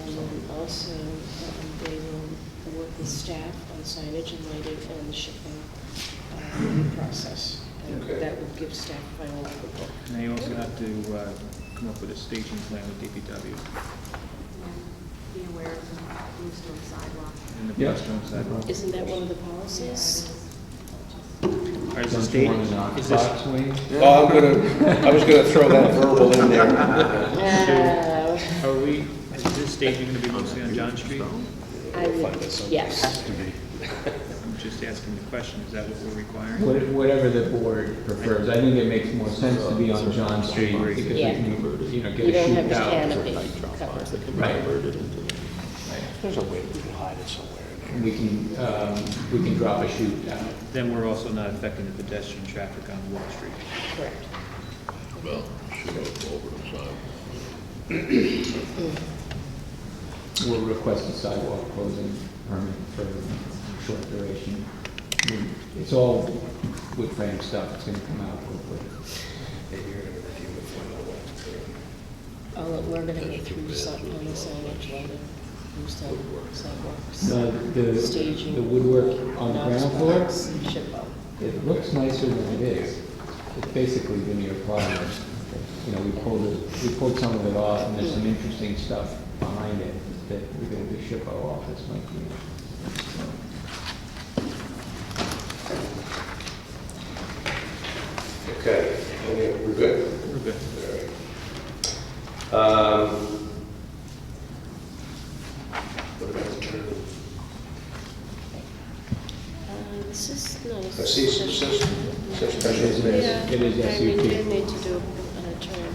And also, um, they will work with staff on signage and lighting and the shipping um, process. And Okay. that will give staff final approval. And they also have to uh, come up with a staging plan with DPW and be aware of the bluestone sidewalk. and the Yeah. pedestrian sidewalk. Isn't that one of the policies? Or Is the state, is this, Oh, I'm gonna, I was gonna throw that verbal in there. Uh, are we, is this staging gonna be mostly on John Street? I would, yes. I'm just asking the question, is that what we're requiring? What- Whatever the board prefers, I think it makes more sense to be on John Street because we Yeah. can, you know, get You a don't have shoot the out. canopy cover. Right. There's a way we can hide it somewhere. And we can, um, we can drop a shoot out. Then we're also not affecting the pedestrian traffic on Wall Street. Correct. Well, shoot up over the side. We'll request a sidewalk closing permit for a short duration. It's all wood frame stuff, it's gonna come out quickly. All, we're gonna go through some, on the signage, lighting, through some sidewalks. Uh, The, the Staging. the woodwork on the ground floor, Knox Box, Shippo. it looks nicer than it is. It's basically veneer plywood. You know, we pulled it, we pulled some of it off, and there's some interesting stuff behind it that we're gonna do ship our office might be. Okay, any- we're good? We're good. Um, What about the turn? Uh, This is not a. I see some, sus- some special It things. Yeah, is- it is I mean, SUP. they need to do a term.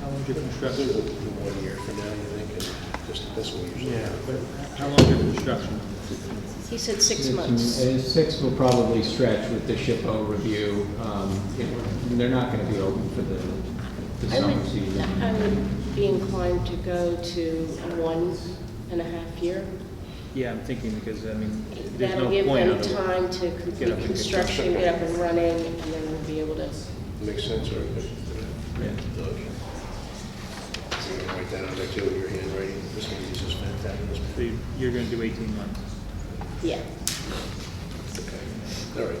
How long's your Rather construction? than do one year from now, you think, and just, that's what we usually Yeah, do. but how long's your construction? He said six It's- months. uh, Six will probably stretch with the SHPO review. Um, it- They're not going to be open for the, the I summer would, season. I would be inclined to go to one and a half year. Yeah, I'm thinking because, I mean, there's no That'll give point them otherwise. time to Get up complete and- construction, get up and running, and then we'll be able to, Makes sense, or, but, Yeah. Doug. So you can write that on there too, your handwriting, this one uses fantabulous. So you- you're gonna do 18 months. yeah. All right.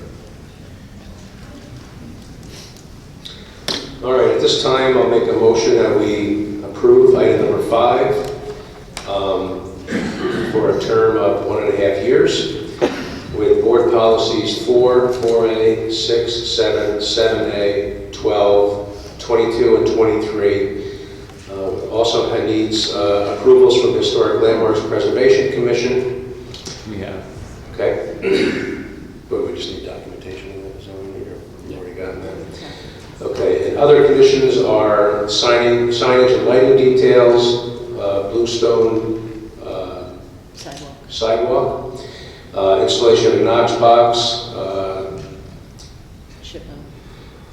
All right, at this time, I'll make a motion that we approve item number five um, for a term of one and a half years with board policies four, four A, six, seven, seven A, 12, 22, and 23. Uh, Also it needs uh, approvals from the Historic Landmarks Preservation Commission. We have, Okay? But we just need documentation of that, so we've already gotten that. Okay, and other conditions are signing, signage and lighting details, uh, bluestone uh, Sidewalk. sidewalk, uh, installation of a Knox box, uh, Ship them.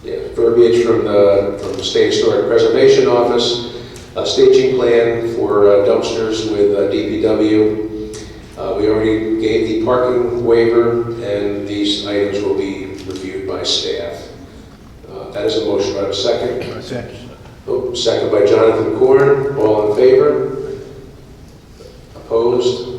yeah, verbiage from the, from the State Historic Preservation Office, a staging plan for uh, dumpsters with uh, DPW. Uh, We already gave the parking waiver, and these items will be reviewed by staff. Uh, That is a motion, do I have a second? Oh, Second by Jonathan Corn, all in favor? Opposed?